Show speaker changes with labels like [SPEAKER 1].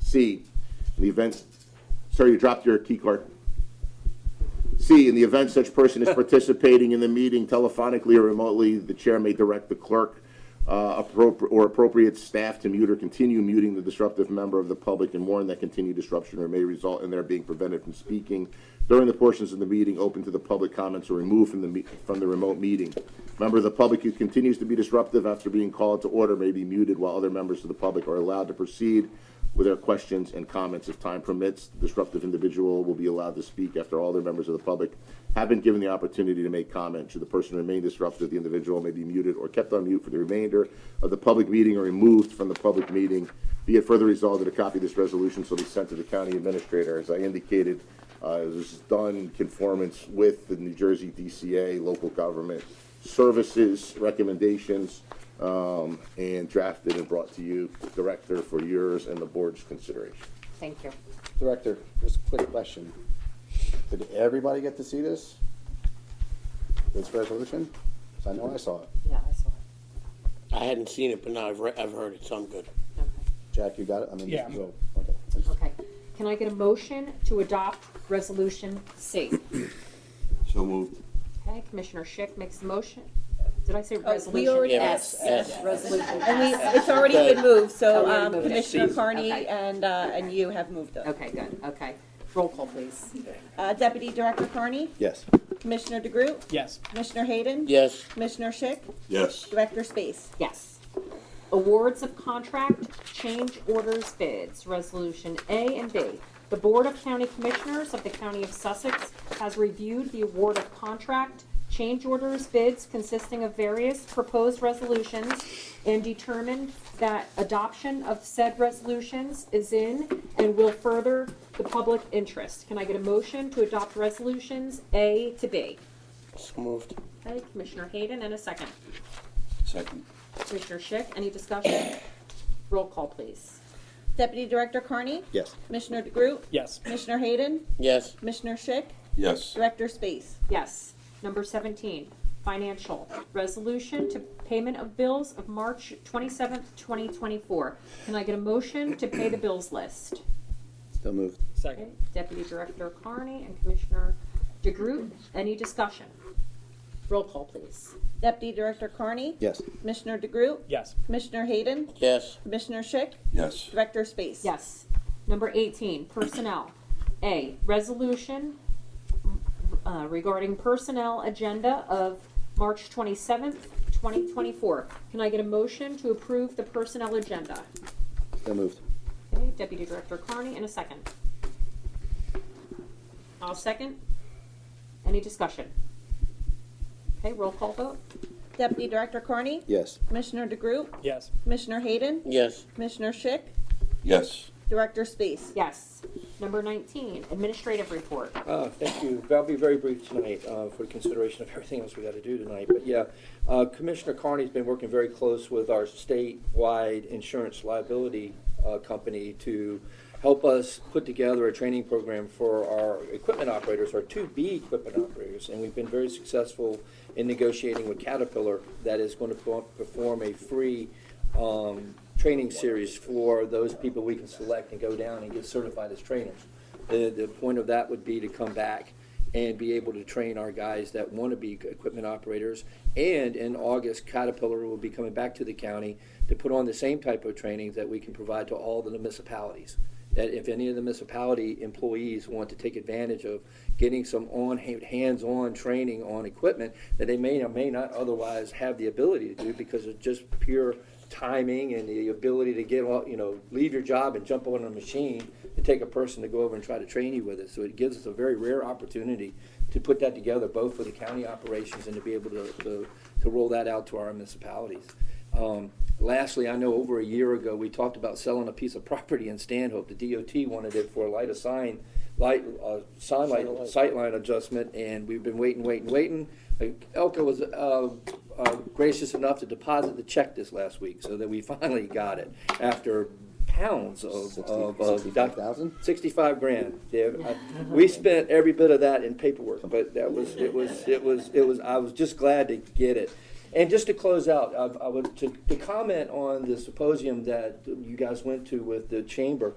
[SPEAKER 1] C, in the event, sorry, you dropped your key card. C, in the event such person is participating in the meeting telephonically or remotely, the chair may direct the clerk uh, appropri- or appropriate staff to mute or continue muting the disruptive member of the public and warn that continued disruption or may result in their being prevented from speaking during the portions of the meeting open to the public comments or removed from the, me- from the remote meeting. Member of the public who continues to be disruptive after being called to order may be muted while other members of the public are allowed to proceed with their questions and comments. If time permits, the disruptive individual will be allowed to speak after all their members of the public have been given the opportunity to make comment. Should the person remain disruptive, the individual may be muted or kept on mute for the remainder of the public meeting or removed from the public meeting. Be it further resolved that a copy of this resolution shall be sent to the county administrator. As I indicated, uh, this is done in conformance with the New Jersey DCA Local Government Services recommendations um, and drafted and brought to you, Director, for yours and the board's consideration.
[SPEAKER 2] Thank you.
[SPEAKER 3] Director, just a quick question. Did everybody get to see this? This resolution? 'Cause I know I saw it.
[SPEAKER 2] Yeah, I saw it.
[SPEAKER 4] I hadn't seen it, but now I've, re- I've heard it, so I'm good.
[SPEAKER 2] Okay.
[SPEAKER 3] Jack, you got it? I mean,
[SPEAKER 5] Yeah.
[SPEAKER 3] so, okay. Just-
[SPEAKER 2] Okay. Can I get a motion to adopt Resolution C?
[SPEAKER 1] So moved.
[SPEAKER 2] Okay, Commissioner Schick makes the motion. Did I say resolution?
[SPEAKER 6] Uh, We already,
[SPEAKER 4] Yeah,
[SPEAKER 6] and
[SPEAKER 4] S, S.
[SPEAKER 2] Resolution.
[SPEAKER 6] we, it's already been moved,
[SPEAKER 2] Oh,
[SPEAKER 6] so
[SPEAKER 2] we already
[SPEAKER 6] um,
[SPEAKER 2] moved it.
[SPEAKER 6] Commissioner Carney
[SPEAKER 2] Okay.
[SPEAKER 6] and, uh, and you have moved them.
[SPEAKER 2] Okay, good, okay. Roll call, please.
[SPEAKER 6] Uh, Deputy Director Carney,
[SPEAKER 3] Yes.
[SPEAKER 6] Commissioner DeGroot,
[SPEAKER 5] Yes.
[SPEAKER 6] Commissioner Hayden.
[SPEAKER 4] Yes,
[SPEAKER 6] Commissioner Schick,
[SPEAKER 1] Yes.
[SPEAKER 6] Director Space.
[SPEAKER 2] Yes. Awards of contract, change orders bids, Resolution A and B. The Board of County Commissioners of the County of Sussex has reviewed the award of contract, change orders bids consisting of various proposed resolutions and determined that adoption of said resolutions is in and will further the public interest. Can I get a motion to adopt resolutions A to B?
[SPEAKER 4] so moved.
[SPEAKER 2] Okay, Commissioner Hayden, and a second.
[SPEAKER 7] Second.
[SPEAKER 2] Commissioner Schick, any discussion? Roll call, please.
[SPEAKER 6] Deputy Director Carney,
[SPEAKER 3] Yes.
[SPEAKER 6] Commissioner DeGroot,
[SPEAKER 5] Yes.
[SPEAKER 6] Commissioner Hayden,
[SPEAKER 4] Yes,
[SPEAKER 6] Commissioner Schick,
[SPEAKER 7] Yes.
[SPEAKER 6] Director Space.
[SPEAKER 2] Yes. Number 17, financial, resolution to payment of bills of March 27th, 2024. Can I get a motion to pay the bills list?
[SPEAKER 3] Still moved.
[SPEAKER 2] Okay,
[SPEAKER 5] Second.
[SPEAKER 2] Deputy Director Carney and Commissioner DeGroot, any discussion? Roll call, please.
[SPEAKER 6] Deputy Director Carney,
[SPEAKER 3] Yes.
[SPEAKER 6] Commissioner DeGroot,
[SPEAKER 5] Yes.
[SPEAKER 6] Commissioner Hayden,
[SPEAKER 4] yes,
[SPEAKER 6] Commissioner Schick,
[SPEAKER 7] Yes.
[SPEAKER 6] Director Space.
[SPEAKER 2] Yes. Number 18, personnel. A, resolution uh, regarding personnel agenda of March 27th, 2024. Can I get a motion to approve the personnel agenda?
[SPEAKER 3] Still moved.
[SPEAKER 2] Okay, Deputy Director Carney, in a second. I'll second. Any discussion? Okay, roll call vote?
[SPEAKER 6] Deputy Director Carney,
[SPEAKER 3] Yes.
[SPEAKER 6] Commissioner DeGroot,
[SPEAKER 5] Yes.
[SPEAKER 6] Commissioner Hayden,
[SPEAKER 4] yes,
[SPEAKER 6] Commissioner Schick,
[SPEAKER 7] Yes.
[SPEAKER 6] Director Space.
[SPEAKER 2] Yes. Number 19, administrative report.
[SPEAKER 8] Uh, Thank you. I'll be very brief tonight uh, for the consideration of everything else we got to do tonight. But yeah, uh, Commissioner Carney's been working very close with our statewide insurance liability uh, company to help us put together a training program for our equipment operators, our 2B equipment operators. And we've been very successful in negotiating with Caterpillar that is going to perform a free um, training series for those people we can select and go down and get certified as trainers. The, the point of that would be to come back and be able to train our guys that want to be equipment operators. And in August, Caterpillar will be coming back to the county to put on the same type of training that we can provide to all the municipalities. That if any of the municipality employees want to take advantage of getting some on, hands-on training on equipment that they may or may not otherwise have the ability to do because of just pure timing and the ability to get all, you know, leave your job and jump on a machine and take a person to go over and try to train you with it. So it gives us a very rare opportunity to put that together, both for the county operations and to be able to, to, to roll that out to our municipalities. Um, lastly, I know over a year ago, we talked about selling a piece of property in Stanhope. The DOT wanted it for a light of sign, light, uh, sign light, sightline adjustment, and we've been waiting, waiting, waiting. Like, Elka was, uh, uh, gracious enough to deposit the check this last week, so that we finally got it after pounds of, of, of doc-
[SPEAKER 3] 65,000?
[SPEAKER 8] Sixty-five grand. Yeah, I- we spent every bit of that in paperwork, but that was, it was, it was, it was, I was just glad to get it. And just to close out, I, I would, to, to comment on the symposium that you guys went to with the chamber,